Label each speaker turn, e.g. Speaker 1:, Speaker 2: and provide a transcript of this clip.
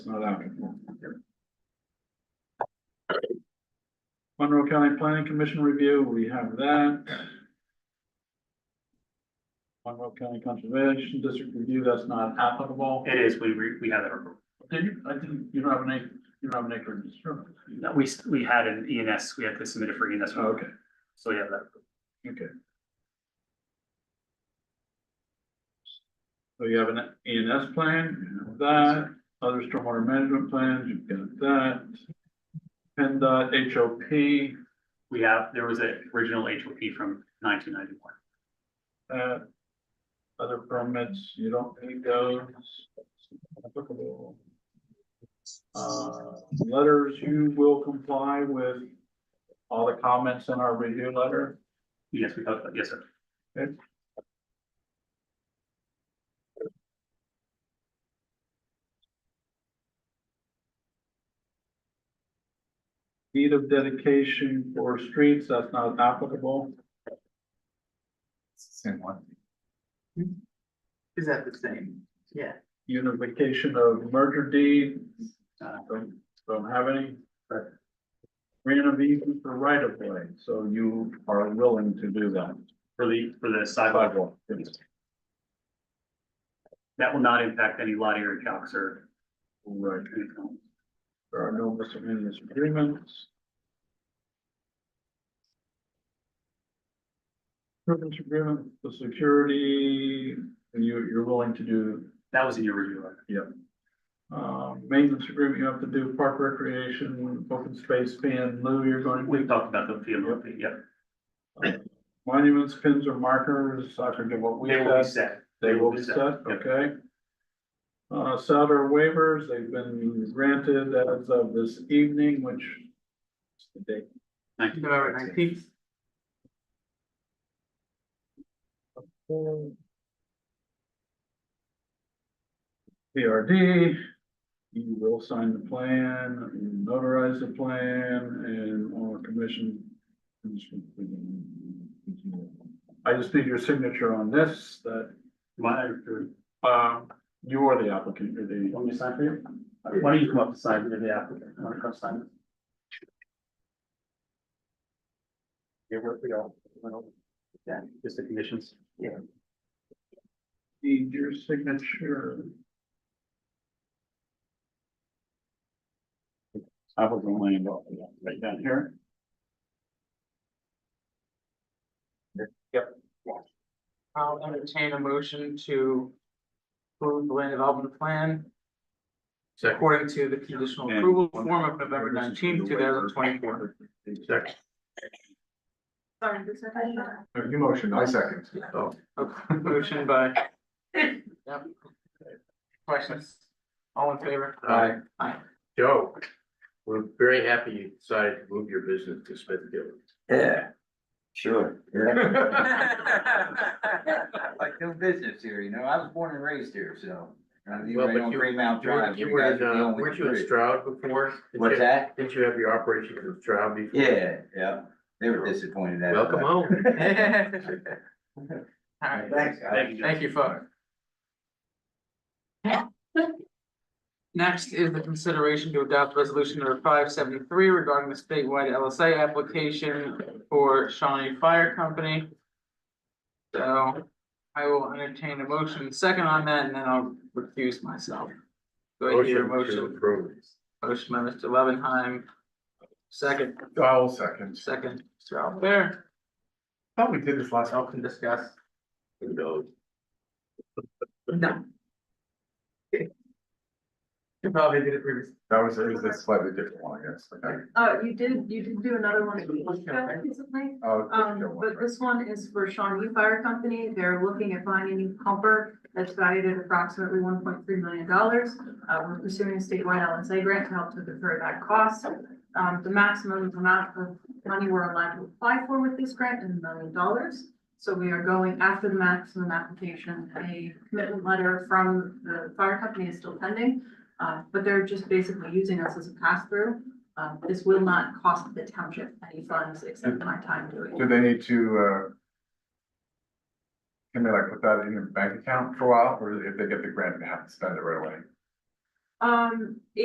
Speaker 1: not out anymore. Monroe County Planning Commission review, we have that. Monroe County Conservation District review, that's not applicable.
Speaker 2: It is, we, re- we have it, approved.
Speaker 1: Did you, I didn't, you don't have an acre, you don't have an acre in this room.
Speaker 2: No, we, s- we had an ENS, we had to submit it for ENS,
Speaker 1: Oh, Okay,
Speaker 2: so we have that.
Speaker 1: okay. So you have an E and S plan, you have that, other stormwater management plans, you've got that. PennDOT HOP,
Speaker 2: We have, there was a original HOP from nineteen ninety-one.
Speaker 1: that. Other permits, you don't need those. Applicable. Uh, letters, you will comply with all the comments in our review letter.
Speaker 2: Yes, we talked about, yes, sir.
Speaker 1: Deed of dedication for streets, that's not applicable.
Speaker 3: Same one.
Speaker 4: Is that the same? Yeah.
Speaker 1: Unification of merger deed,
Speaker 2: Uh,
Speaker 1: don't, don't have any. Random easement for right of way, so you are willing to do that.
Speaker 2: For the, for the sidewalk,
Speaker 3: oh.
Speaker 1: Sidewalk, yes.
Speaker 2: that will not impact any lot area calcs or
Speaker 1: right,
Speaker 2: anything.
Speaker 1: there are no miscellaneous agreements. Privilege agreement, the security, and you, you're willing to do
Speaker 2: That was in your review letter.
Speaker 1: Uh, maintenance agreement, you have to do park recreation, open space ban, Lou, you're going to
Speaker 2: We've talked about the field, yeah,
Speaker 1: do. Monuments, pins or markers, I forget what we
Speaker 2: they will be
Speaker 1: said.
Speaker 2: set.
Speaker 1: They will be set, okay? Uh, Souter waivers, they've been granted as of this evening, which is the date.
Speaker 2: Thank you.
Speaker 4: November nineteenth.
Speaker 1: PRD, you will sign the plan, you notarize the plan, and all our commission. I just need your signature on this, that,
Speaker 2: My,
Speaker 1: um, you are the applicant, you're the,
Speaker 2: want me to sign for you? Why don't you come up to sign, you're the applicant, want to come sign? Yeah, where we go. Yeah, just the conditions. Yeah.
Speaker 1: need your signature.
Speaker 2: I was only involved, yeah, right down here.
Speaker 4: I'll entertain a motion to approve the land development plan according to the conditional
Speaker 1: And-
Speaker 4: approval form of November nineteenth, two thousand twenty-four.
Speaker 1: Exactly.
Speaker 5: Sorry, this is.
Speaker 1: You motion,
Speaker 3: I second.
Speaker 4: Motion by. Yep. Questions? All in favor?
Speaker 6: Hi.
Speaker 4: Aye.
Speaker 6: Joe, we're very happy you decided to move your business to Smithfield.
Speaker 3: Yeah, sure. Like no business here, you know, I was born and raised here, so. uh, You
Speaker 6: Well,
Speaker 3: right
Speaker 6: but
Speaker 3: on
Speaker 6: you-
Speaker 3: Green Mount Drive.
Speaker 6: You
Speaker 3: you
Speaker 6: were
Speaker 3: guys
Speaker 6: in,
Speaker 3: are the
Speaker 6: uh,
Speaker 3: only
Speaker 6: weren't you in
Speaker 3: three.
Speaker 6: Stroud before? Didn't
Speaker 3: What's
Speaker 6: you-
Speaker 3: that?
Speaker 6: Didn't you have your operations in Stroud before?
Speaker 3: Yeah, yeah, they were disappointed at.
Speaker 6: Welcome home.
Speaker 4: All right,
Speaker 3: Thanks, guys.
Speaker 2: Thank you.
Speaker 4: Thank you, folks. Next is the consideration to adopt resolution number five seventy-three regarding the statewide LSA application for Shawnee Fire Company. So I will entertain a motion second on that and then I'll recuse myself. Go ahead, your
Speaker 6: Motion to
Speaker 4: motion,
Speaker 6: approve.
Speaker 4: motion by Mr. Levenheim. Second,
Speaker 6: I'll second.
Speaker 4: second, Mr. Albert,
Speaker 6: Thought we did this last.
Speaker 4: y'all can discuss.
Speaker 6: No.
Speaker 4: No. You probably did it previously.
Speaker 6: That was, it was a slightly different one, I guess.
Speaker 5: Uh, you did, you did do another one recently,
Speaker 6: Oh,
Speaker 5: um, but this one is for Shawnee Fire Company, they're looking at buying a new pumper that's valued at approximately one point three million dollars. Uh, we're pursuing a statewide LSA grant to help to defer that cost. Um, the maximum amount of money we're allowed to apply for with this grant is a million dollars. So we are going after the maximum application, a commitment letter from the fire company is still pending. Uh, but they're just basically using us as a pass-through. Um, this will not cost the township any funds except my time doing it.
Speaker 7: Do they need to, uh? Can they like put that in their bank account for a while, or if they get the grant, they have to spend it right away?
Speaker 5: Um,